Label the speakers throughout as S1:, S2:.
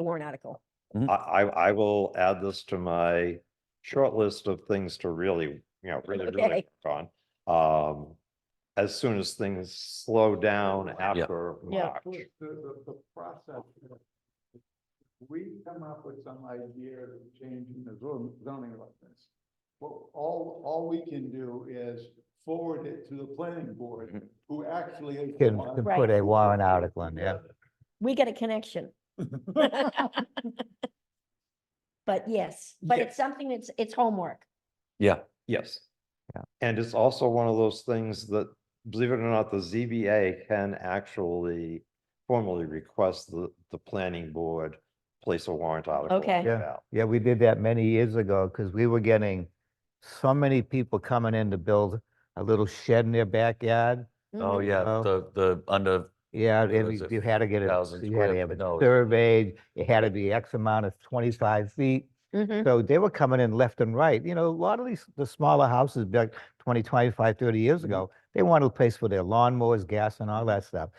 S1: the warrant article.
S2: I, I, I will add this to my short list of things to really, you know, really, really
S1: Okay.
S2: work on. Um, as soon as things slow down after
S1: Yeah.
S2: March.
S3: The, the, the process. is We come up with some idea of changing the zon- zoning like this. Well, all, all we can do is forward it to the planning board, who actually. is the
S4: Mm-hmm. Can,
S3: one-
S4: can
S1: Right.
S4: put a warrant article in, yeah.
S1: We get a connection. But yes, but
S2: Yeah.
S1: it's something that's, it's homework.
S5: Yeah,
S2: Yes.
S4: Yeah.
S2: And it's also one of those things that, believe it or not, the ZBA can actually formally request the, the planning board place a warrant article. on
S1: Okay.
S2: the
S4: Yeah.
S2: ballot.
S4: Yeah, we did that many years ago because we were getting so many people coming in to build a little shed in their backyard.
S5: oh,
S1: Mhm.
S5: yeah,
S4: Oh.
S5: the, the, under,
S4: Yeah,
S5: What
S4: and
S5: is
S4: you-
S5: it,
S4: you had to get it,
S5: 50,000
S4: you had to
S5: square-
S4: have it
S5: no, it's-
S4: surveyed, it had to be X amount of twenty-five feet.
S1: Mhm.
S5: Mm-hmm.
S4: So they were coming in left and right, you know, a lot of these, the smaller houses built 20, 25, 30 years
S5: Mm-hmm.
S4: ago, they wanted a place for their lawnmowers, gas and all that stuff.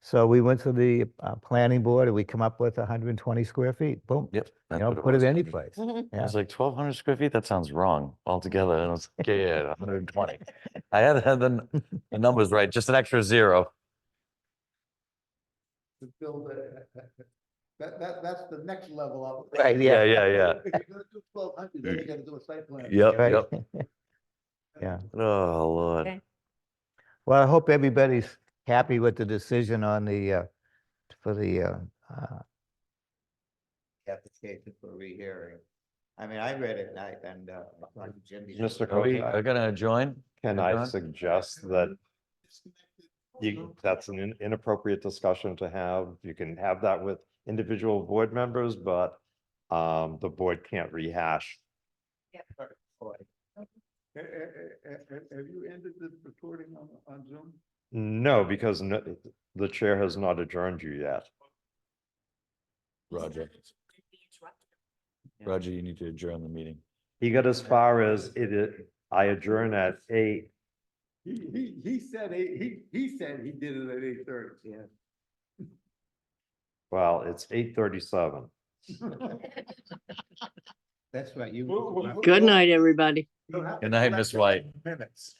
S4: So we went to the uh, planning board and we come up with 120 square feet, boom.
S5: yep.
S4: You
S5: that's
S4: know,
S5: what
S4: put
S5: was.
S4: it any place.
S1: Mhm.
S5: I was like, twelve hundred square feet? That sounds wrong altogether. And I was like, yeah, yeah, one hundred and twenty. I had, had the, n- the numbers right, just an extra zero.
S3: To build a, that, that, that's the next level up.
S4: Right, yeah.
S5: Yeah, yeah,
S3: If you're gonna do twelve hundred, then you gotta do a site plan.
S5: Yep,
S4: Right?
S5: yep.
S4: Yeah.
S5: Oh, Lord.
S1: Okay.
S4: Well, I hope everybody's happy with the decision on the, uh, for the, uh, uh. Application for rehearing. I mean, I read it and I, and, uh, Jimmy.
S2: Mr.
S5: Are we,
S2: Cody,
S5: are gonna adjourn?
S2: can
S5: John?
S2: I suggest that
S3: Disconnected. Mm-hmm.
S2: you, that's an in- inappropriate discussion to have. You can have that with individual board members, but um, the board can't rehash.
S3: Eh, eh, eh, eh, eh, Have you ended the recording on, on Zoom?
S2: No, because no, the chair has not adjourned you yet.
S5: Roger, Roger, you need to adjourn the meeting.
S2: He got as far as it, is- I adjourn at eight
S3: He, he, he said, he, he, he said he did it at eight thirty. Yeah.
S2: Well, it's eight thirty-seven.
S4: That's right, you.
S3: Who- who-
S6: Good night, everybody.
S3: You'll have
S5: Good
S3: to
S5: night,
S3: correct
S5: Miss
S3: it in
S5: White.
S3: Minutes.